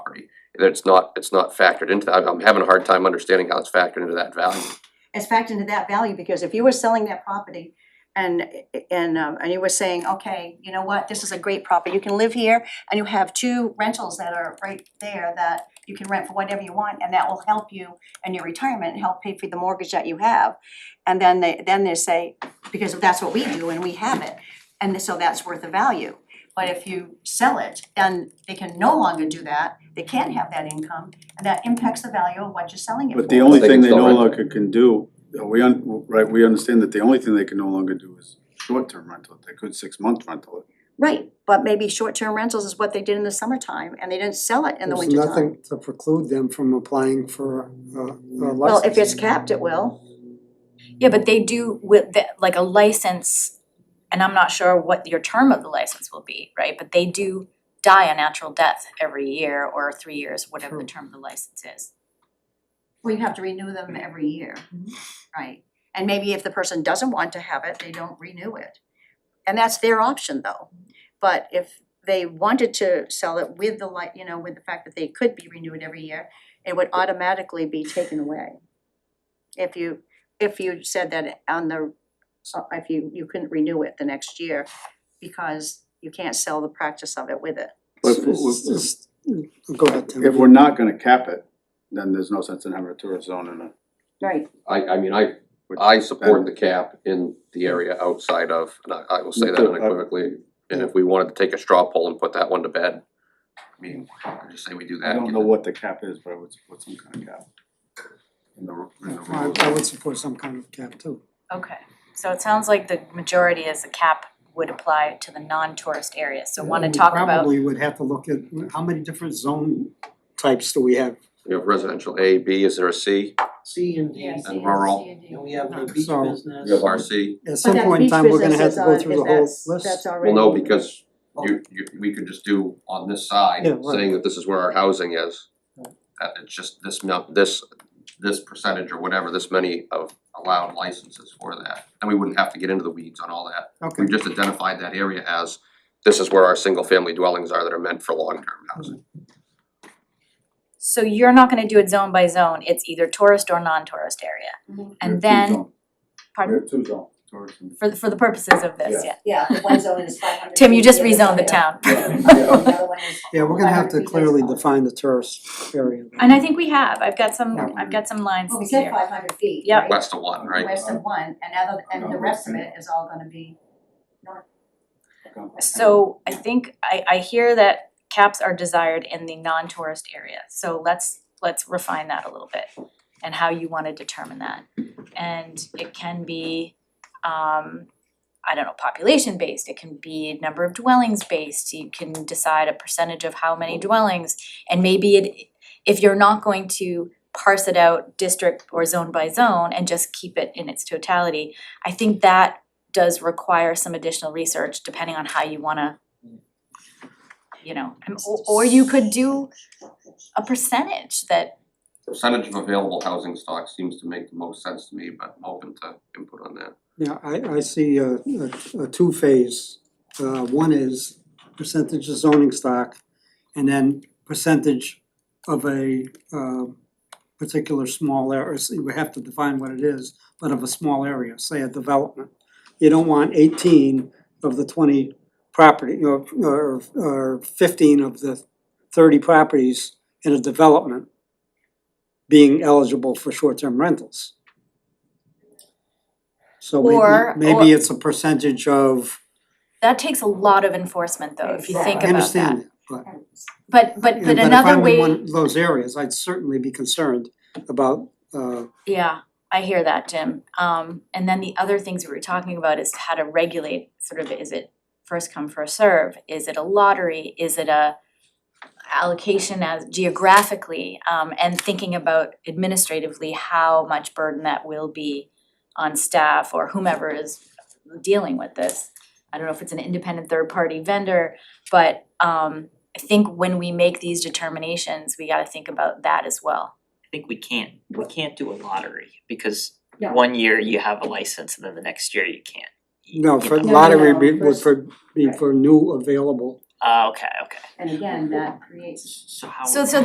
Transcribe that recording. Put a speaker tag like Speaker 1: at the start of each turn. Speaker 1: It's not, it's not factored into that. I'm having a hard time understanding how it's factored into that value.
Speaker 2: It's factored into that value, because if you were selling that property and and um and you were saying, okay, you know what, this is a great property, you can live here and you have two rentals that are right there that you can rent for whatever you want and that will help you in your retirement and help pay for the mortgage that you have. And then they then they say, because that's what we do and we have it, and so that's worth the value. But if you sell it, then they can no longer do that, they can't have that income, and that impacts the value of what you're selling it for.
Speaker 3: But the only
Speaker 1: They can
Speaker 3: thing they
Speaker 1: still
Speaker 3: no
Speaker 1: rent it.
Speaker 3: longer can do, uh, we un, right, we understand that the only thing they can no longer do is short-term rental, they could six-month rental it.
Speaker 2: Right, but maybe short-term rentals is what they did in the summertime and they didn't sell it in the
Speaker 4: There's
Speaker 2: wintertime.
Speaker 4: nothing to preclude them from applying for a, a license.
Speaker 2: Well, if it's capped, it will.
Speaker 5: Yeah, but they do with the, like a license, and I'm not sure what your term of the license will be, right? But they do die a natural death every year or three years, whatever the term of the license is.
Speaker 2: Well, you have to renew them every year, right? And maybe if the person doesn't want to have it, they don't renew it. And that's their option though. But if they wanted to sell it with the like, you know, with the fact that they could be renewed every year, it would automatically be taken away. If you, if you said that on the, uh, if you, you couldn't renew it the next year because you can't sell the practice of it with it.
Speaker 3: But if,
Speaker 4: It's
Speaker 3: if-
Speaker 4: just- Go ahead, Tim.
Speaker 3: if we're not gonna cap it, then there's no sense in having a tourist zone in a.
Speaker 2: Right.
Speaker 1: I, I mean, I, I support the cap in the area outside of, and I, I will say that
Speaker 3: uh,
Speaker 1: unequivocally. And if we wanted to take a straw poll and put that one to bed, I mean, I just say we do that.
Speaker 3: I don't know what the cap is, but I would support some kind of cap. In the, ru- in the
Speaker 4: I,
Speaker 3: rules.
Speaker 4: I would support some kind of cap too.
Speaker 5: Okay, so it sounds like the majority is the cap would apply to the non-tourist areas, so wanna
Speaker 4: We
Speaker 5: talk about,
Speaker 4: Probably would have to look at, how many different zone types do we have?
Speaker 1: You have residential A, B, is there a C?
Speaker 6: C and D,
Speaker 1: And rural,
Speaker 6: and we have the beach
Speaker 4: So-
Speaker 6: business.
Speaker 1: you have RC?
Speaker 4: At some point in time, we're gonna have to go through the whole list.
Speaker 2: that's already.
Speaker 1: Well, no, because you, you, we could just do on this side,
Speaker 4: Oh. Yeah, right.
Speaker 1: saying that this is where our housing is. Uh, it's just this amount, this, this percentage or whatever, this many of allowed licenses for that, and we wouldn't have to get into the weeds on all that.
Speaker 4: Okay,
Speaker 1: We've just identified that area as, this is where our single-family dwellings are that are meant for long-term housing.
Speaker 5: so you're not gonna do it zone by zone, it's either tourist or non-tourist area.
Speaker 2: Mhm.
Speaker 3: We have two
Speaker 5: And then,
Speaker 3: zones. We
Speaker 5: pardon,
Speaker 3: have two zones, tourist and.
Speaker 5: for the, for the purposes of this,
Speaker 3: Yeah.
Speaker 5: yeah.
Speaker 2: Yeah, one zone is five hundred.
Speaker 5: Tim, you just rezoned the town.
Speaker 4: yeah, we're gonna have to
Speaker 2: 500 feet is
Speaker 4: clearly
Speaker 2: fine.
Speaker 4: define the tourist area.
Speaker 5: And I think we have, I've got some,
Speaker 3: Yeah.
Speaker 5: I've got some lines
Speaker 2: Well, we
Speaker 5: here.
Speaker 2: said five hundred feet,
Speaker 5: Yep.
Speaker 2: right?
Speaker 1: West of one, right?
Speaker 2: West of one, and other, and the rest of it is all gonna be north.
Speaker 5: So I think I I hear that caps are desired in the non-tourist area, so let's let's refine that a little bit and how you wanna determine that. And it can be um I don't know, population based, it can be number of dwellings based, you can decide a percentage of how many dwellings. And maybe it, if you're not going to parse it out district or zone by zone and just keep it in its totality, I think that does require some additional research depending on how you wanna you know, and or or you could do a percentage that
Speaker 1: Percentage of available housing stock seems to make the most sense to me, but I'm open to input on that.
Speaker 4: Yeah, I, I see a, a, a two-phase. Uh, one is percentage of zoning stock, and then percentage of a, um, particular small area, so you have to define what it is, but of a small area, say a development. You don't want eighteen of the twenty property, or, or, or fifteen of the thirty properties in a development being eligible for short-term rentals. So
Speaker 5: Or-
Speaker 4: maybe, maybe
Speaker 5: or-
Speaker 4: it's a percentage of,
Speaker 5: that takes a lot of enforcement though, if you
Speaker 4: I
Speaker 5: think about that.
Speaker 4: understand, but.
Speaker 5: But but but
Speaker 4: yeah, if I
Speaker 5: another
Speaker 4: were
Speaker 5: way,
Speaker 4: in one of those areas, I'd certainly be concerned about, uh,
Speaker 5: yeah, I hear that, Jim. Um and then the other things we were talking about is how to regulate sort of is it first come, first serve? Is it a lottery? Is it a allocation as geographically? Um and thinking about administratively how much burden that will be on staff or whomever is dealing with this. I don't know if it's an independent third party vendor, but um I think when we make these determinations, we gotta think about that as well.
Speaker 6: I think we can't, we can't do a lottery because
Speaker 2: No.
Speaker 6: one year you have a license and then the next year you can't. You-
Speaker 4: no,
Speaker 6: you
Speaker 4: for
Speaker 6: know.
Speaker 5: no,
Speaker 4: lottery
Speaker 5: no,
Speaker 4: be- would
Speaker 2: first-
Speaker 4: for, be for new available
Speaker 6: Ah, okay, okay.
Speaker 2: And again, that creates
Speaker 6: So how
Speaker 5: So
Speaker 6: would-
Speaker 5: so